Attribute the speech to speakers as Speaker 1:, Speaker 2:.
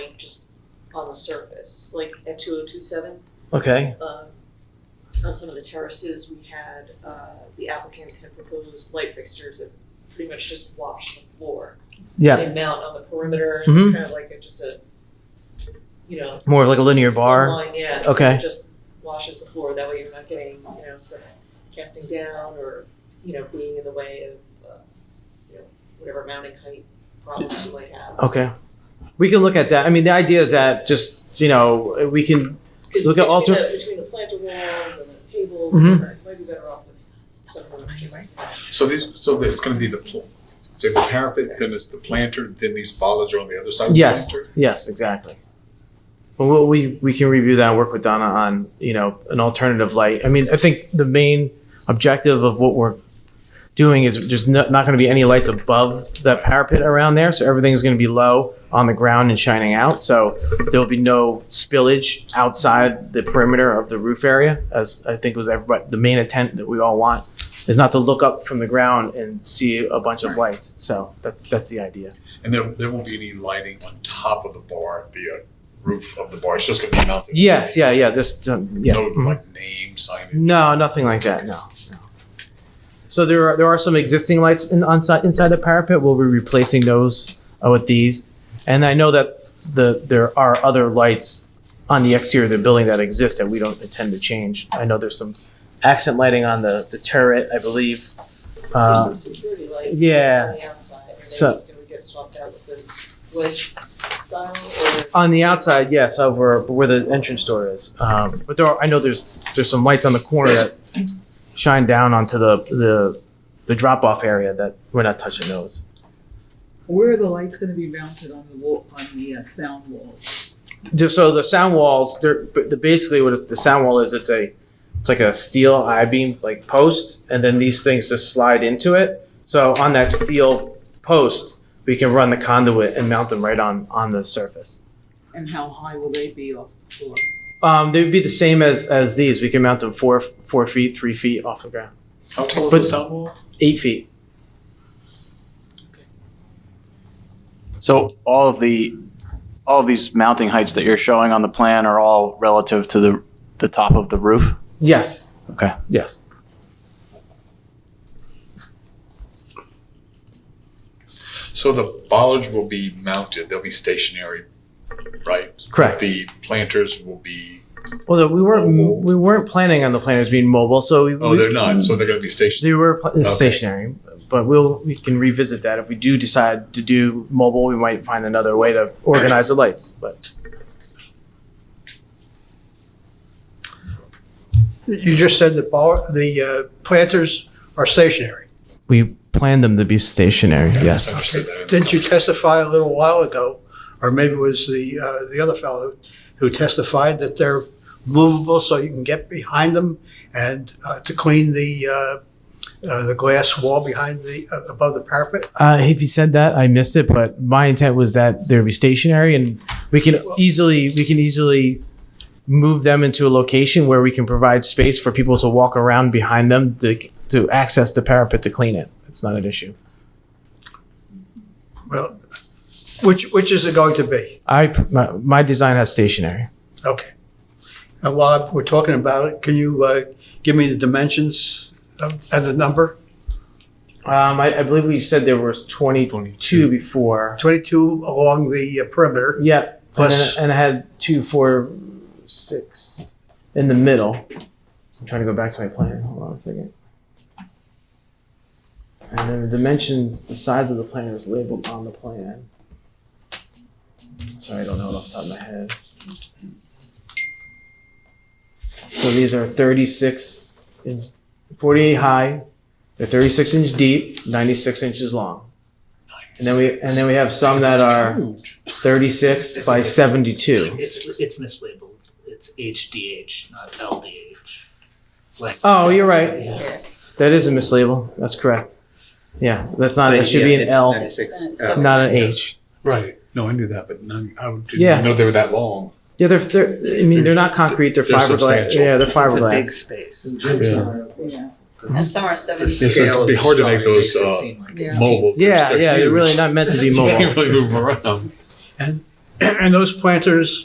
Speaker 1: like just on the surface, like at two oh two seven.
Speaker 2: Okay.
Speaker 1: um, on some of the terraces, we had, uh, the applicant had proposed light fixtures that pretty much just wash the floor.
Speaker 2: Yeah.
Speaker 1: They mount on the perimeter
Speaker 2: Mhm.
Speaker 1: and kind of like a, just a, you know.
Speaker 2: More of like a linear bar.
Speaker 1: slim line, Yeah.
Speaker 2: Okay.
Speaker 1: it Just washes the floor, that way you're not getting, you know, stuff casting down or, you know, being in the way of, uh, you know, whatever mounting height problems you might have.
Speaker 2: Okay. We can look at that. I mean, the idea is that just, you know, we can,
Speaker 1: 'Cause
Speaker 2: Look at
Speaker 1: between
Speaker 2: alter-
Speaker 1: the- Between the planter walls and the table,
Speaker 2: Mhm.
Speaker 1: whatever, it might be better off with something that's just.
Speaker 3: So these, so it's gonna be the, pl- say the parapet, then it's the planter, then these bollards are on the other side of the
Speaker 2: yes,
Speaker 3: planter?
Speaker 2: yes, exactly. But we'll, we, we can review that and work with Donna on, you know, an alternative light. I mean, I think the main objective of what we're doing is there's no, not going to be any lights above that parapet around there. So everything's going to be low on the ground and shining out. So there'll be no spillage outside the perimeter of the roof area, as I think was everybody, the main intent that we all want is not to look up from the ground and see a bunch of lights. So that's, that's the idea.
Speaker 3: And there, there won't be any lighting on top of the bar, the uh, roof of the bar, it's just gonna be mounted?
Speaker 2: Yes, yeah, yeah. Just um, yeah.
Speaker 3: No,
Speaker 2: Mhm.
Speaker 3: like name signage?
Speaker 2: No, nothing like that. No. no. So there are there are some existing lights in, on, si- inside the parapet. We'll be replacing those uh, with these, and I know that the there are other lights on the exterior of the building that exist that we don't intend to change. I know there's some accent lighting on the, the turret, I believe.
Speaker 1: There's
Speaker 2: Uh,
Speaker 1: some security light.
Speaker 2: yeah.
Speaker 1: On the outside, and
Speaker 2: So-
Speaker 1: then it's gonna get swapped out with this wedge style or.
Speaker 2: on the outside, yes, over where the entrance door is. Um, but there are, I know there's there's some lights on the corner that shine down onto the the, the drop off area that we're not touching those.
Speaker 4: Where are the lights gonna be mounted on the wall, on the uh, sound walls?
Speaker 2: Just so the sound walls, they're but the, basically what the sound wall is. It's a it's like a steel I beam like post, and then these things just slide into it. So on that steel post, we can run the conduit and mount them right on on the surface.
Speaker 4: And how high will they be off the floor?
Speaker 2: Um, they would be the same as as these. We can mount them four four feet, three feet off the ground,
Speaker 3: How tall is
Speaker 2: But-
Speaker 3: the sound wall?
Speaker 2: eight feet.
Speaker 5: So all of the, all of these mounting heights that you're showing on the plan are all relative to the, the top of the roof?
Speaker 2: Yes.
Speaker 5: Okay.
Speaker 2: Yes.
Speaker 3: So the bollards will be mounted, they'll be stationary, right? The planters will be,
Speaker 2: Well, we weren't we weren't planning on the planners being mobile, so we,
Speaker 3: oh, they're not, so they're gonna be stationary.
Speaker 2: they were pl- stationary. But we'll we can revisit that if we do decide to do mobile. We might find another way to organize the lights. But
Speaker 6: You just said the ball, the uh, planters are stationary.
Speaker 2: we planned them to be stationary.
Speaker 3: I understood that.
Speaker 6: Didn't you testify a little while ago, or maybe it was the, uh, the other fellow who testified that they're movable so you can get behind them and uh, to clean the, uh, uh, the glass wall behind the, uh, above the parapet?
Speaker 2: Uh, if you said that, I missed it. But my intent was that they'd be stationary, and we can easily we can easily move them into a location where we can provide space for people to walk around behind them to to access the parapet to clean it. It's not an issue.
Speaker 6: Well, which, which is it going to be?
Speaker 2: I my, my design has stationary.
Speaker 6: Okay. And while we're talking about it, can you uh, give me the dimensions of- and the number?
Speaker 2: Um, I, I believe we said there was twenty two before.
Speaker 6: 22 along the uh, perimeter.
Speaker 2: Yep. And, then,
Speaker 6: Plus-
Speaker 2: and I had two, four, six in the middle. I'm trying to go back to my plan. Hold on a second. And then the dimensions, the size of the plan was labeled on the plan. Sorry, I don't know it off the top of my head. So these are 36 inch, 48 high. They're 36 inch deep, 96 inches long. And then we and then we have some that are 36 by 72.
Speaker 7: It's it's mislabeled. It's HDH, not LDH. Like
Speaker 2: Oh, you're right.
Speaker 7: Yeah.
Speaker 2: That is a mislabel. That's correct. Yeah, that's not. It should be an L, not an H.
Speaker 3: Right, no, I knew that, but none, I
Speaker 2: Yeah.
Speaker 3: didn't know they were that long.
Speaker 2: Yeah, they're, they're I mean, they're not concrete. They're
Speaker 3: They're
Speaker 2: fiberglass.
Speaker 3: substantial.
Speaker 2: Yeah, they're
Speaker 7: It's a big
Speaker 2: fiberglass.
Speaker 7: space.
Speaker 4: Yeah,
Speaker 8: And some are seventy.
Speaker 3: Yeah, so it'd be hard to make those, uh,
Speaker 4: yeah.
Speaker 3: mobile. 'cause
Speaker 2: Yeah, yeah, they're really
Speaker 3: huge.
Speaker 2: not meant to be
Speaker 3: You
Speaker 2: mobile.
Speaker 3: can't really move 'em around.
Speaker 6: And those planters